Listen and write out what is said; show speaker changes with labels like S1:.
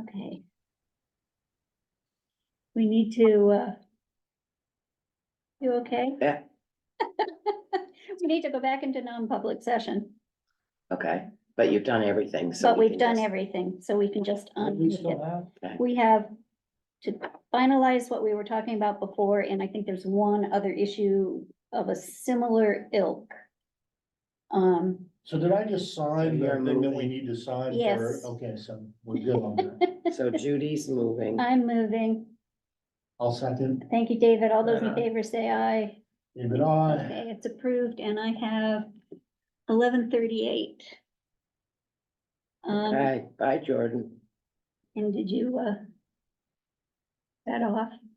S1: Okay. We need to, uh. You okay?
S2: Yeah.
S1: We need to go back into non-public session,
S2: Okay, but you've done everything, so.
S1: but
S2: we
S1: we've
S2: can
S1: done
S2: just-
S1: everything, so we can just.
S3: What do we
S1: unmute it.
S3: still have?
S1: We have to finalize what we were talking about before, and I think there's one other issue of a similar ilk. Um,
S3: So did I just
S2: So
S3: sign the
S2: you're
S3: thing that we
S2: moving.
S3: need to sign? for-
S1: Yes.
S3: Okay, so we're good on that.
S2: So Judy's moving.
S1: I'm moving.
S3: I'll second,
S1: Thank you, David. All those in
S2: Uh-huh.
S1: favor say aye.
S3: David, I,
S1: Okay, it's approved and I have eleven thirty-eight. Um,
S2: Bye, bye, Jordan.
S1: and did you, uh, that off?